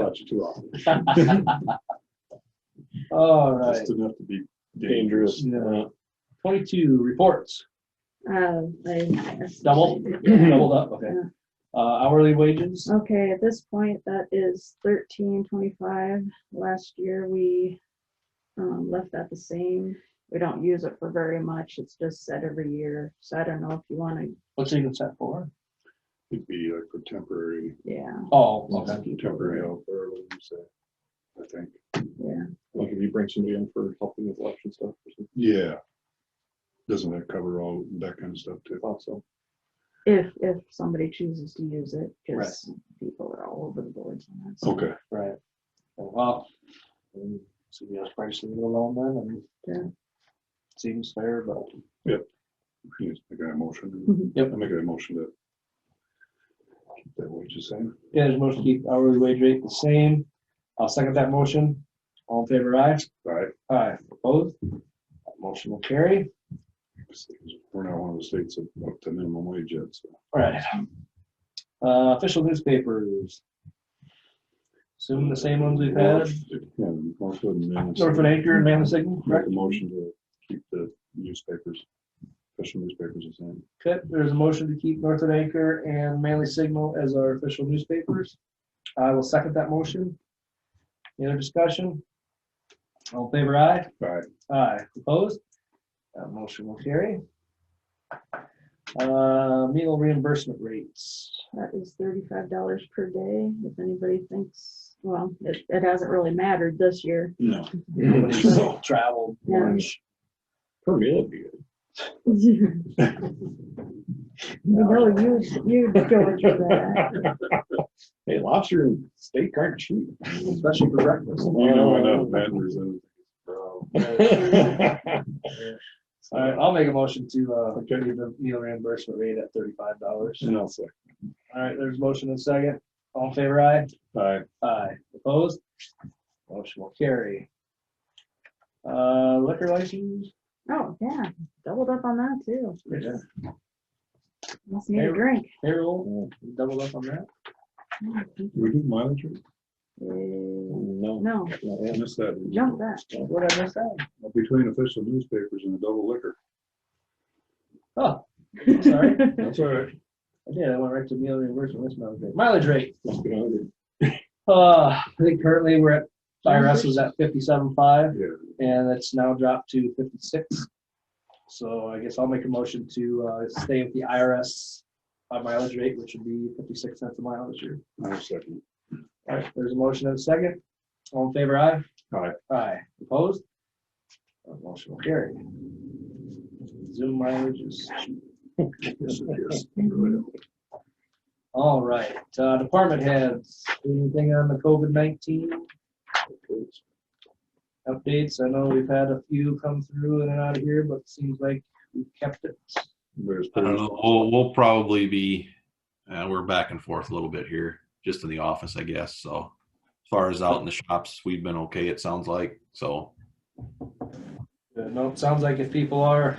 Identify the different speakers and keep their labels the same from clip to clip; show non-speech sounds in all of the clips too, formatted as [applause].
Speaker 1: touch too often.
Speaker 2: [laughs] All right,
Speaker 1: Just enough to be dangerous.
Speaker 2: Yeah. twenty-two, reports,
Speaker 3: Uh, I-
Speaker 2: double, doubled up, okay. Uh, hourly wages,
Speaker 3: Okay, at this point, that is thirteen twenty-five. Last year, we um, left that the same. We don't use it for very much. It's just set every year. So I don't know if you want to,
Speaker 2: what's it even set for?
Speaker 1: It'd be like for temporary,
Speaker 3: yeah,
Speaker 2: Oh, okay,
Speaker 1: temporary help or whatever you say, I think.
Speaker 3: yeah.
Speaker 1: Like if you bring somebody in for helping with election stuff. Yeah. Doesn't that cover all that kind of stuff too? Also.
Speaker 3: If, if somebody chooses to use it, because people are all over the boards on that. so,
Speaker 1: Okay,
Speaker 2: right. Oh, Well, um, CBS pricing it alone then,
Speaker 3: Yeah.
Speaker 2: and seems fair, but
Speaker 1: yes, I got a motion.
Speaker 3: Mhm.
Speaker 2: Mm-hmm. Yep.
Speaker 1: I make a motion to. keep That what you saying?
Speaker 2: yeah, there's a motion to keep hourly wage rate the same. I'll second that motion. All in favor, aye?
Speaker 1: All right.
Speaker 2: Aye, opposed? That Motion will carry.
Speaker 1: We're not one of the states that up to minimum wage yet, so.
Speaker 2: All right. Uh, official newspapers. Assume the same ones we've had,
Speaker 1: Yeah, Northwood and. Manistee.
Speaker 2: Northwood Anchor and Mammoth Signal,
Speaker 1: Make
Speaker 2: correct?
Speaker 1: a motion to keep the newspapers, official newspapers the same.
Speaker 2: Okay, there's a motion to keep Northwood Anchor and Manly Signal as our official newspapers. I will second that motion. Any other discussion? All in favor, aye?
Speaker 1: All right,
Speaker 2: Aye, opposed? That motion will carry. Uh, meal reimbursement rates.
Speaker 3: That is thirty-five dollars per day. If anybody thinks, well, it, it hasn't really mattered this year.
Speaker 1: [laughs] no.
Speaker 2: Travel,
Speaker 3: Yeah.
Speaker 2: lunch.
Speaker 1: Per meal would
Speaker 3: [laughs]
Speaker 1: be good.
Speaker 3: You know, you, you go into
Speaker 1: [laughs]
Speaker 3: that.
Speaker 1: Hey, lobster and steak aren't cheap, especially for breakfast. You know, I know, vendors [laughs] and. [laughs]
Speaker 2: All right, I'll make a motion to, uh, continue the meal reimbursement rate at thirty-five dollars.
Speaker 1: And I'll say,
Speaker 2: All right, there's a motion and a second. All in favor, aye?
Speaker 1: all
Speaker 2: Aye. Opposed? Motion will carry. Uh, liquor license?
Speaker 3: Oh, yeah, doubled up on that too.
Speaker 2: Yeah.
Speaker 3: Must need a
Speaker 2: Favorite.
Speaker 3: drink.
Speaker 2: Payroll, double up on that?
Speaker 1: we do mileage? rate? Uh,
Speaker 4: No,
Speaker 3: No,
Speaker 1: I missed that.
Speaker 3: jump that.
Speaker 2: Oh, What did I miss out?
Speaker 1: Between official newspapers and the double liquor.
Speaker 2: Oh,
Speaker 3: [laughs]
Speaker 2: sorry.
Speaker 1: That's all right.
Speaker 2: I did, I went right to meal reimbursement, that's mileage rate. Mileage rate,
Speaker 1: Must be hundred.
Speaker 2: uh, I think currently we're at, IRS was at fifty-seven five.
Speaker 1: Yeah.
Speaker 2: and it's now dropped to fifty-six. So I guess I'll make a motion to uh, stay with the IRS uh, mileage rate, which would be fifty-six cents a mile this year.
Speaker 1: I'll second.
Speaker 2: All right, there's a motion and a second. All in favor, aye?
Speaker 1: Aye.
Speaker 2: Aye. Opposed? Uh, Motion will carry. Zoom mileage is,
Speaker 3: [laughs]
Speaker 1: Yes, yes. Really.
Speaker 2: all right, uh, department heads, anything on the COVID nineteen updates? I know we've had a few come through in and out of here, but it seems like we kept it.
Speaker 1: There's-
Speaker 4: I don't know. We'll, we'll probably be, uh, we're back and forth a little bit here, just in the office, I guess. So as far as out in the shops, we've been okay, it sounds like. So,
Speaker 2: Uh, No, it sounds like if people are,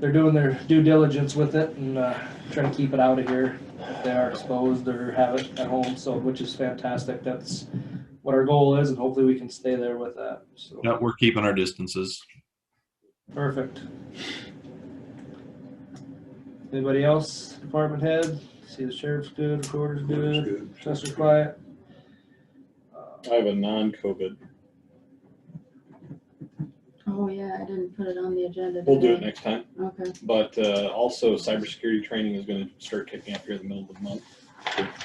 Speaker 2: they're doing their due diligence with it and uh, trying to keep it out of here. If They are exposed or have it at home, so, which is fantastic. That's what our goal is and hopefully we can stay there with that. So,
Speaker 4: yeah, we're keeping our distances.
Speaker 2: perfect. Anybody else? Department head? See the sheriff's good, recorder's
Speaker 1: That's
Speaker 2: good,
Speaker 1: good.
Speaker 2: assessor's quiet. Uh,
Speaker 5: I have a non-COVID.
Speaker 3: Oh, yeah, I didn't put it on the agenda.
Speaker 5: We'll do it
Speaker 3: today.
Speaker 5: next time.
Speaker 3: Okay.
Speaker 5: But uh, also, cybersecurity training is going to start kicking up here in the middle of the month,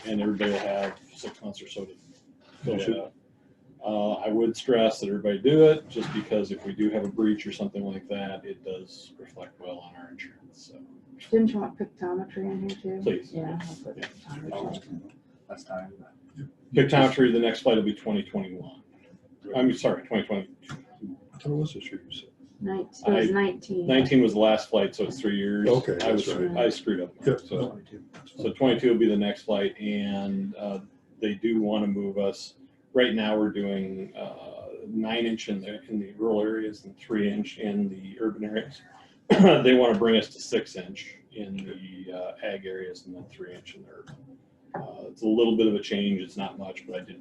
Speaker 5: and everybody will have six months or so to fill that out. Uh, I would stress that everybody do it, just because if we do have a breach or something like that, it does reflect well on our insurance. So
Speaker 3: Didn't you want pictometry in here too?
Speaker 5: please,
Speaker 3: Yeah. I'll put pictometry.
Speaker 2: That's time.
Speaker 5: pictometry. The next flight will be 2021. I'm sorry, 2020.
Speaker 1: Tell us this year, you said.
Speaker 3: Nine- It was
Speaker 5: I-
Speaker 3: nineteen.
Speaker 5: 19 was the last flight, so it's three years.
Speaker 1: Okay,
Speaker 5: I was
Speaker 1: that's
Speaker 3: right.
Speaker 5: I screwed up.
Speaker 1: Yep.
Speaker 5: So. So 22 will be the next flight, and uh, they do want to move us. Right now, we're doing uh, nine inch in the in the rural areas and three inch in the urban areas. [clears throat] they want to bring us to six inch in the uh, ag areas and then three inch in the urban. Uh, it's a little bit of a change. It's not much, but I did